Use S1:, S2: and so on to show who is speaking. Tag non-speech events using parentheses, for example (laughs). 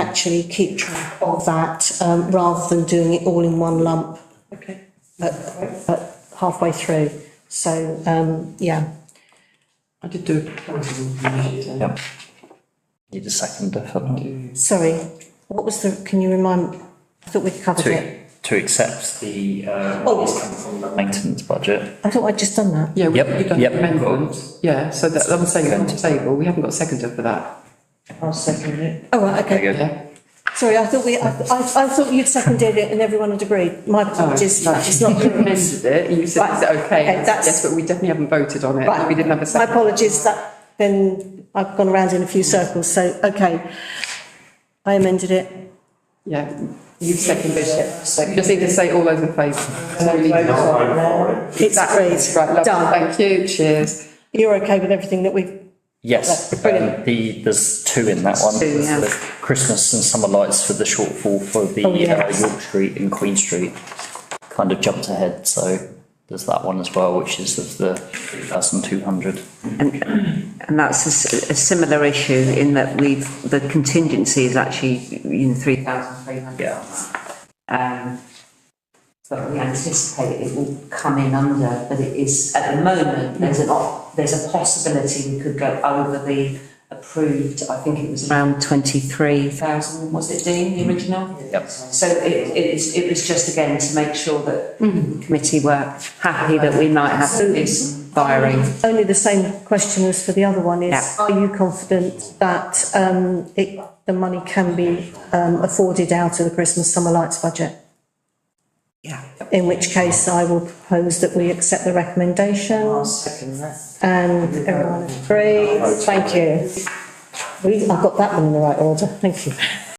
S1: actually keep track of that, um, rather than doing it all in one lump
S2: Okay.
S1: at, at halfway through. So, um, yeah,
S2: I did do a proposal initially. then.
S3: Yep. Need a second for that.
S1: sorry, what was the, can you remind, I thought we covered it.
S3: To, to accept the, uh,
S1: Oh.
S3: what is coming from the maintenance budget.
S1: I thought I'd just done that.
S2: Yeah, we-
S3: Yep,
S2: we've done
S3: yep.
S2: amendments, yeah, so that, I'm saying it's on the table, we haven't got a seconder for that,
S4: I'll second it.
S1: Oh, right, okay.
S3: There you go.
S2: yeah?
S1: Sorry, I thought we, I, I, I thought you'd seconded it and everyone had agreed. My
S2: Oh,
S1: apologies,
S2: no,
S1: it's not.
S2: You amended it, and you said, is it okay?
S1: okay,
S2: And I said,
S1: that's-
S2: Yes, but we definitely haven't voted on it,
S1: Right.
S2: (laughs) we didn't have a
S1: My
S2: second.
S1: apologies, that, then I've gone around in a few circles, so, okay. I amended it.
S2: Yeah, you've seconded it. You
S4: Second.
S2: just need to say all those in favour. No, you-
S1: It's agreed.
S2: Right,
S1: Done.
S2: lovely, thank you, cheers.
S1: You're okay with everything that we've,
S3: Yes, um,
S1: Brilliant.
S3: the, there's two in that one.
S2: Two,
S3: There's
S2: yeah.
S3: the Christmas and summer lights for the shortfall for the
S1: Oh, yeah.
S3: uh, York Street and Queen Street. Kind of jumped ahead, so there's that one as well, which is of the three thousand two hundred.
S4: And that's a, s- a similar issue in that we've, the contingency is actually, you know, three thousand three hundred.
S3: Yeah.
S4: Um, but we anticipate it will come in under, but it is, at the moment, there's an op, there's a possibility we could go over the approved, I think it was around twenty-three thousand, was it Dean, the original?
S3: Yep.
S4: So it, it is, it was just again to make sure that the committee were happy that we might have this firing.
S1: only the same question as for the other one is,
S4: Yeah.
S1: are you confident that, um, it, the money can be, um, afforded out of the Christmas summer lights budget?
S4: Yeah.
S1: In which case I will propose that we accept the recommendation
S4: second that.
S1: and everyone agrees. Thank you. We, I got that one in the right order, thank you.